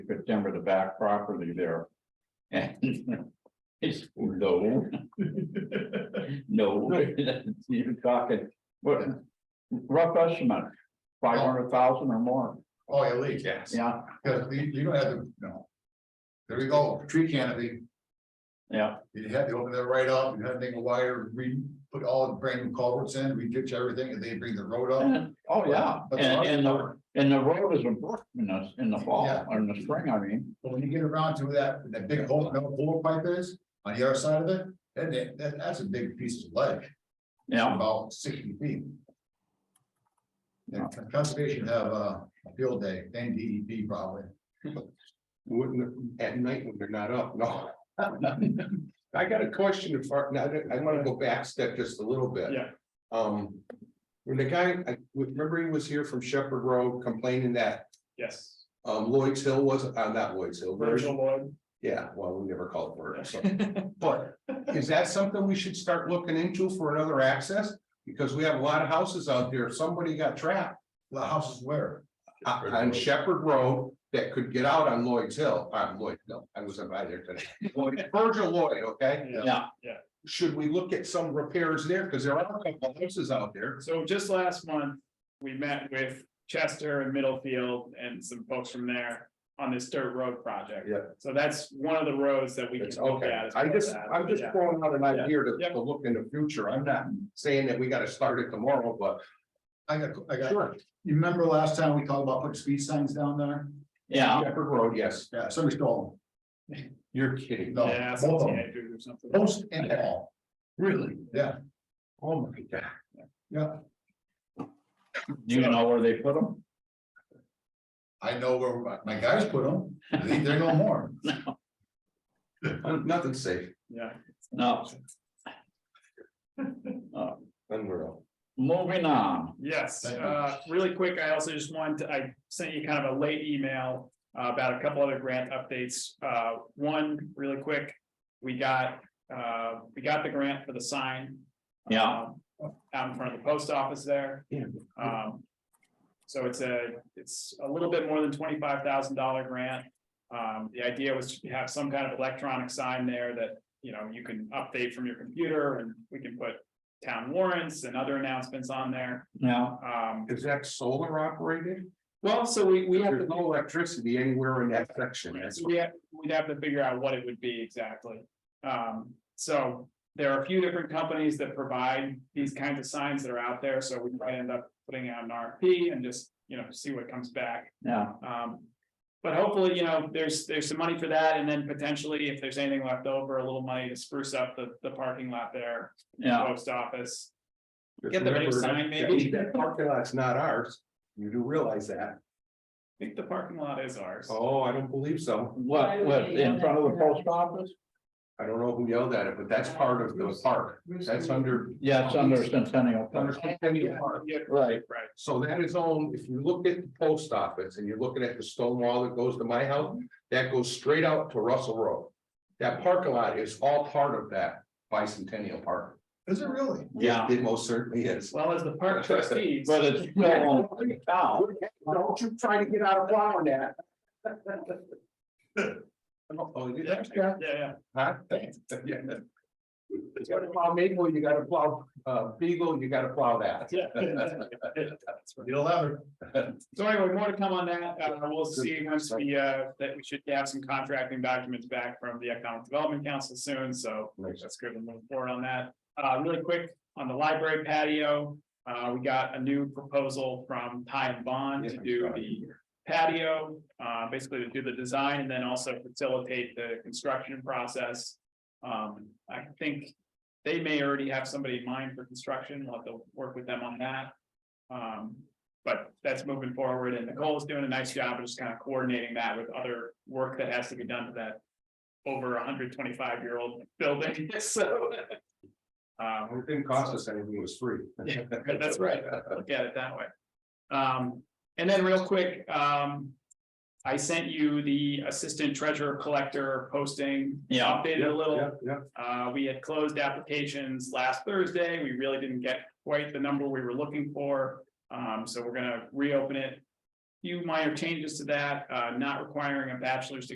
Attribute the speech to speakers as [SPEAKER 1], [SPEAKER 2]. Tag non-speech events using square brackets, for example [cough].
[SPEAKER 1] could timber the back property there. And [laughs] it's, no. No, [laughs] you're talking, what, rough estimate, five hundred thousand or more,
[SPEAKER 2] Oh, at least,
[SPEAKER 3] Yes.
[SPEAKER 1] yeah,
[SPEAKER 2] because you, you don't have to, no. There we go, tree canopy,
[SPEAKER 1] yeah,
[SPEAKER 2] you had to open that right up, you had to make a wire, we put all the brand new culverts in, we ditch everything, and they bring the road
[SPEAKER 1] [laughs]
[SPEAKER 2] up.
[SPEAKER 1] and, oh, yeah,
[SPEAKER 2] That's
[SPEAKER 1] and,
[SPEAKER 2] awesome.
[SPEAKER 1] and the, and the road is a brook in the, in the fall,
[SPEAKER 2] Yeah.
[SPEAKER 1] or in the spring, I mean.
[SPEAKER 2] But when you get around to that, that big hole, no bullet pipe is, on the other side of it, then that, that, that's a big piece of ledge.
[SPEAKER 1] Yeah,
[SPEAKER 2] About sixty feet. Yeah, conservation have uh, a field day, N D E P probably.
[SPEAKER 3] Wouldn't, at night when they're not up, no. I got a question if, I- now, that- I wanna go back step just a little bit.
[SPEAKER 1] Yeah.
[SPEAKER 3] Um, when the guy, I remember he was here from Shepherd Road complaining that
[SPEAKER 4] Yes,
[SPEAKER 3] um Lloyd's Hill was, uh, not Lloyd's Hill. Virgil-
[SPEAKER 4] Virgil Lloyd.
[SPEAKER 3] Yeah, well, we never called for it, so. But is that something we should start looking into for another access? Because we have a lot of houses out there, somebody got trapped
[SPEAKER 2] The house is where?
[SPEAKER 3] o- Uh, on Shepherd Road that could get out on Lloyd's Hill, on Lloyd, no, I was by there today. Lloyd- Virgil Lloyd, okay?
[SPEAKER 1] yeah,
[SPEAKER 3] Should we look at some repairs there? Because there are a couple houses out there.
[SPEAKER 4] So just last month, we met with Chester and Middlefield and some folks from there on this dirt road project.
[SPEAKER 3] Yeah.
[SPEAKER 4] So that's one of the roads that we can
[SPEAKER 3] It's
[SPEAKER 4] look
[SPEAKER 3] okay.
[SPEAKER 4] at. as
[SPEAKER 3] I
[SPEAKER 4] part of
[SPEAKER 3] just,
[SPEAKER 4] that.
[SPEAKER 3] I'm just
[SPEAKER 4] Yeah.
[SPEAKER 3] throwing out an idea to,
[SPEAKER 4] Yeah.
[SPEAKER 3] to look in the future. I'm not saying that we gotta start it tomorrow, but
[SPEAKER 2] I got, I got,
[SPEAKER 3] sure.
[SPEAKER 2] you remember last time we talked about putting speed signs down there?
[SPEAKER 1] yeah,
[SPEAKER 3] Shepherd Road, yes.
[SPEAKER 2] Yeah, somebody stole
[SPEAKER 3] You're kidding.
[SPEAKER 2] them. No,
[SPEAKER 4] Yeah, some
[SPEAKER 2] both of them.
[SPEAKER 4] teenagers or something.
[SPEAKER 3] Oh.
[SPEAKER 2] Post and all,
[SPEAKER 3] Really?
[SPEAKER 2] yeah,
[SPEAKER 3] Oh, my God.
[SPEAKER 2] yeah.
[SPEAKER 1] do you know where they put them?
[SPEAKER 2] I know where my- my guys put them, they, they're no
[SPEAKER 4] [laughs]
[SPEAKER 2] more.
[SPEAKER 3] Uh, Nothing's safe.
[SPEAKER 4] Yeah,
[SPEAKER 1] No,
[SPEAKER 3] Unreal.
[SPEAKER 1] moving on,
[SPEAKER 4] yes,
[SPEAKER 2] Thank you.
[SPEAKER 4] uh, really quick, I also just wanted, to- I sent you kind of a late email uh, about a couple other grant updates. Uh, one, really quick, we got, uh, we got the grant for the sign.
[SPEAKER 1] yeah,
[SPEAKER 4] um, Out in front of the post office there.
[SPEAKER 3] Yeah.
[SPEAKER 4] Um, so it's a, it's a little bit more than twenty-five thousand dollar grant. Um, the idea was to have some kind of electronic sign there that, you know, you can update from your computer and we can put town warrants and other announcements on there.
[SPEAKER 1] yeah,
[SPEAKER 4] Um,
[SPEAKER 3] Is that solar operated?
[SPEAKER 4] well, so we, we have
[SPEAKER 3] There's
[SPEAKER 4] to,
[SPEAKER 3] no electricity anywhere in that section. That's
[SPEAKER 4] so we have, we'd have to figure out what it would be exactly. Um, so there are a few different companies that provide these kinds of signs that are out there, so we might end up putting out an RFP and just, you know, see what comes back.
[SPEAKER 1] yeah,
[SPEAKER 4] Um, but hopefully, you know, there's, there's some money for that, and then potentially, if there's anything left over, a little money to spruce up the, the parking lot there,
[SPEAKER 1] yeah,
[SPEAKER 4] post office.
[SPEAKER 3] Just
[SPEAKER 4] Get the big
[SPEAKER 3] remember
[SPEAKER 4] sign,
[SPEAKER 3] that-
[SPEAKER 4] maybe.
[SPEAKER 3] That parking lot's not ours. You do realize that.
[SPEAKER 4] I think the parking lot is ours.
[SPEAKER 3] Oh, I don't believe so.
[SPEAKER 1] what, what, in front of the post office?
[SPEAKER 3] I don't know who yelled at it, but that's part of the park. That's under.
[SPEAKER 1] Yeah, it's under Centennial.
[SPEAKER 3] under
[SPEAKER 1] Park.
[SPEAKER 3] Centennial Park.
[SPEAKER 4] Yeah,
[SPEAKER 1] Right,
[SPEAKER 4] right.
[SPEAKER 3] So that is owned, if you look at the post office and you're looking at the stone wall that goes to my house, that goes straight out to Russell Road. That parking lot is all part of that bicentennial park.
[SPEAKER 2] Is it really?
[SPEAKER 1] yeah,
[SPEAKER 3] It most certainly is.
[SPEAKER 4] Well, as the park trustees,
[SPEAKER 1] but it's still on the town.
[SPEAKER 3] Don't you try to get out of plowing that. Oh, you
[SPEAKER 4] yeah, yeah, yeah,
[SPEAKER 3] Huh? Yeah. [laughs] You gotta plow maple, you gotta plow, uh, beagle, you gotta plow
[SPEAKER 4] [laughs]
[SPEAKER 3] that.
[SPEAKER 4] yeah.
[SPEAKER 3] [laughs]
[SPEAKER 4] That's right.
[SPEAKER 2] You'll have it.
[SPEAKER 4] So anyway, more to come on that, uh, we'll see once we, uh, that we should have some contracting documents back from the Economic Development Council soon, so
[SPEAKER 3] Nice.
[SPEAKER 4] That's good. We're moving forward on that. Uh, really quick, on the library patio, uh, we got a new proposal from Ty and Bond to
[SPEAKER 3] Yeah,
[SPEAKER 4] do
[SPEAKER 3] I'm
[SPEAKER 4] the patio, uh, basically to do the design and then also facilitate the construction process. Um, I think they may already have somebody in mind for construction. We'll have to work with them on that. Um, but that's moving forward and Nicole's doing a nice job of just kind of coordinating that with other work that has to be done to that over a hundred twenty-five year old building, [laughs] so. Um,
[SPEAKER 3] It didn't cost us anything, it was free.
[SPEAKER 4] Yeah, that's right. look at it that way. Um, and then real quick, um. I sent you the assistant treasurer collector posting.
[SPEAKER 1] Yeah.
[SPEAKER 4] Updated a little.
[SPEAKER 3] Yeah, yeah.
[SPEAKER 4] Uh, we had closed applications last Thursday. We really didn't get quite the number we were looking for. Um, so we're gonna reopen it. few minor changes to that, uh, not requiring a bachelor's